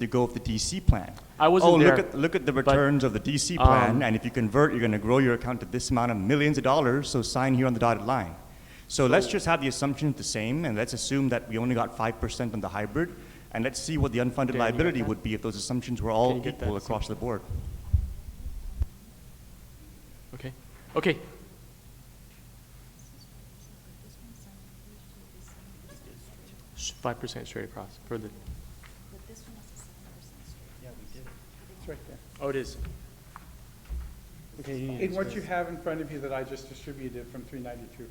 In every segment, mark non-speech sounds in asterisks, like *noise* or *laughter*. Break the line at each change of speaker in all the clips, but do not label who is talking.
to go with the DC plan.
I wasn't
oh,
there,
look at look at the
but,
returns of the DC plan,
um,
and if you convert, you're going to grow your account to this amount of millions of dollars. So sign here on the dotted line. So let's just have the assumptions the same, and let's assume that we only got five percent on the hybrid, and let's see what the unfunded
get
liability
that?
would be if those assumptions were
Can
all
you get
equal
that?
across the board.
Okay, okay. Five percent straight across for the.
It's right there.
Oh, it is. Okay. you need
In what
to-
you have in front of you that I just distributed from three ninety-two.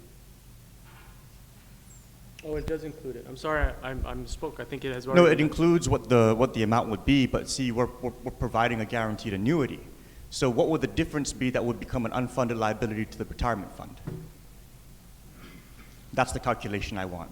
Oh, it does include it. I'm sorry, I, I'm- I misspoke. I think it has.
No,
already
it
been-
includes what the, what the amount would be, but see, we're, we're, we're providing a guaranteed annuity. So what would the difference be that would become an unfunded liability to the retirement fund? That's the calculation I want.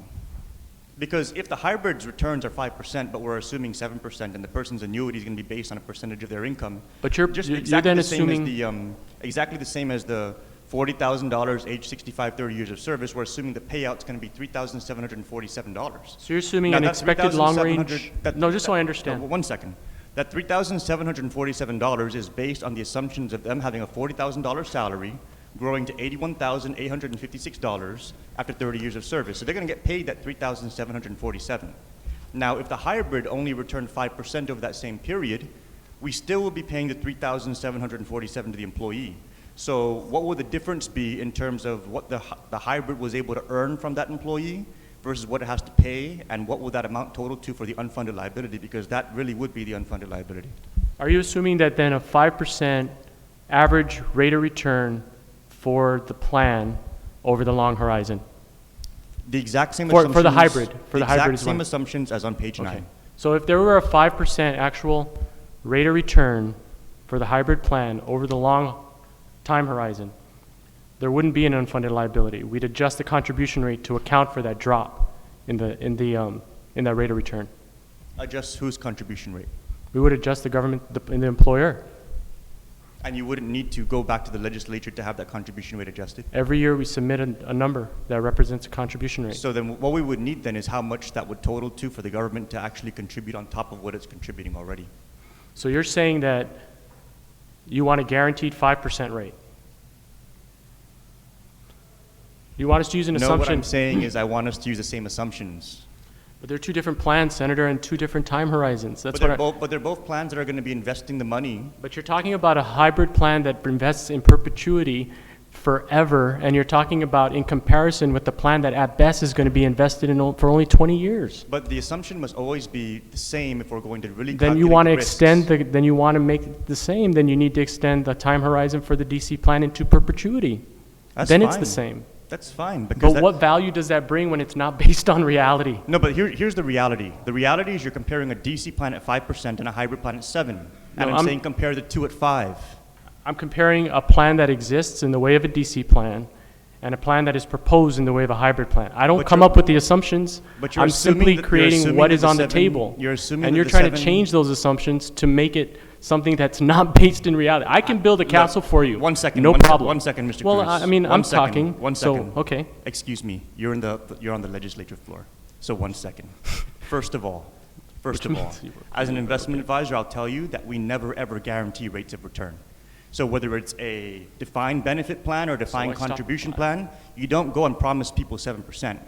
Because if the hybrid's returns are five percent, but we're assuming seven percent, and the person's annuity is gonna be based on a percentage of their income.
But you're-
just
you're- you're
exactly
then
the same as
assuming-
the, um, Exactly the same as the forty thousand dollars, age 65, 30 years of service, we're assuming the payout's gonna be three thousand seven hundred and forty-seven dollars.
So you're assuming
Now,
an
that
expected long
3,700
range?
that-
No, just so I
that-
understand.
no, One second. That three thousand seven hundred and forty-seven dollars is based on the assumptions of them having a forty thousand dollar salary, growing to eighty-one thousand eight hundred and fifty-six dollars after thirty years of service. So they're gonna get paid that three thousand seven hundred and forty-seven. Now, if the hybrid only returned five percent over that same period, we still will be paying the three thousand seven hundred and forty-seven to the employee. So what would the difference be in terms of what the, hy- the hybrid was able to earn from that employee versus what it has to pay, and what would that amount total to for the unfunded liability? Because that really would be the unfunded liability.
Are you assuming that then a five percent average rate of return for the plan over the long horizon?
The exact same
For- for the
assumptions-
hybrid, for the hybrid
exact
is
same
one.
assumptions as on page
Okay.
nine.
So if there were a five percent actual rate of return for the hybrid plan over the long time horizon, there wouldn't be an unfunded liability. We'd adjust the contribution rate to account for that drop in the, in the, um, in that rate of return.
Adjust whose contribution rate.
We would adjust the government, the, the employer.
And you wouldn't need to go back to the legislature to have that contribution rate adjusted.
Every year, we submit a, a number that represents a contribution rate.
So then what we would need then is how much that would total to for the government to actually contribute on top of what it's contributing already.
So you're saying that you want a guaranteed five percent rate? You want us to use an
No, what I'm
assumption,
saying is I want us to use the same assumptions.
but they're two different plans, Senator, and two different time horizons. That's
But
what
they're
I,
both, but they're both plans that are gonna be investing the money
but you're talking about a hybrid plan that invests in perpetuity forever, and you're talking about in comparison with the plan that at best is going to be invested in o- for only twenty years.
But the assumption must always be the same if we're going to really.
Then you
calculate
want to
the risks.
extend the, then you want to make it the same, then you need to extend the time horizon for the DC plan into perpetuity.
That's
Then it's the
fine.
same.
That's fine because.
But
that-
what value does that bring when it's not based on reality?
No, but here, here's the reality. The reality is you're comparing a DC plan at five percent and a hybrid plan at seven.
No,
And I'm
I'm-
saying compare the two at five.
I'm comparing a plan that exists in the way of a DC plan and a plan that is proposed in the way of a hybrid plan. I don't
But
come
you're-
up with the assumptions.
but you're
I'm
assuming
simply
that- you're
creating
assuming
what
that
is
the
on the
seven-
table.
you're assuming
And
that
you're
the
trying to
seven-
change those assumptions to make it something that's *laughs* not based in reality. I can build a castle for you.
Uh, One second.
No
one sec-
problem.
One second, Mr. Cruz.
Well, I I mean,
One
I'm
second,
talking.
One second.
So, okay.
Excuse me, you're in the, you're on the legislative floor, so one
*laughs*
second. First of all, first of all,
means you were-
as
*laughs*
an investment advisor, I'll tell you that we never, ever guarantee rates of return. So whether it's a defined benefit plan or
I
defined
stopped
contribution plan, you don't go and promise people seven percent.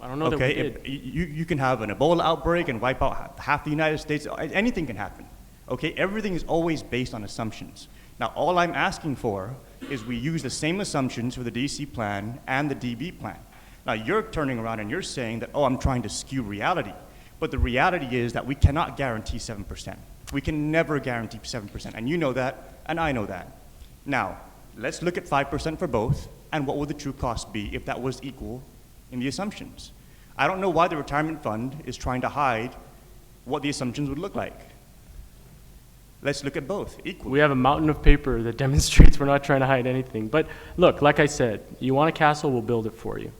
I don't know that we
Okay,
did.
If- you, you can have an Ebola outbreak and wipe out ha- half the United States, A- anything can happen. Okay, everything is always based on assumptions. Now, all I'm asking for is we use the same assumptions for the DC plan and the DB plan. Now, you're turning around and you're saying that, oh, I'm trying to skew reality. But the reality is that we cannot guarantee 7%. We can never guarantee 7%. And you know that, and I know that. Now, let's look at 5% for both, and what would the true cost be if that was equal in the assumptions? I don't know why the retirement fund is trying to hide what the assumptions would look like. Let's look at both equally.
We have a mountain of paper that *laughs* demonstrates we're not trying to hide anything. But look, like I said, you want a castle, we'll build it for you.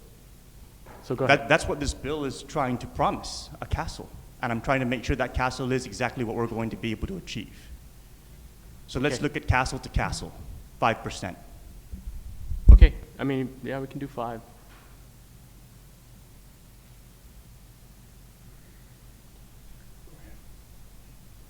So go ahead.
That, that's what this bill is trying to promise a castle. And I'm trying to make sure that castle is exactly what we're going to be able to achieve. So let's
Okay.
look at castle to castle 5%.
Okay, I mean, yeah, we can do five.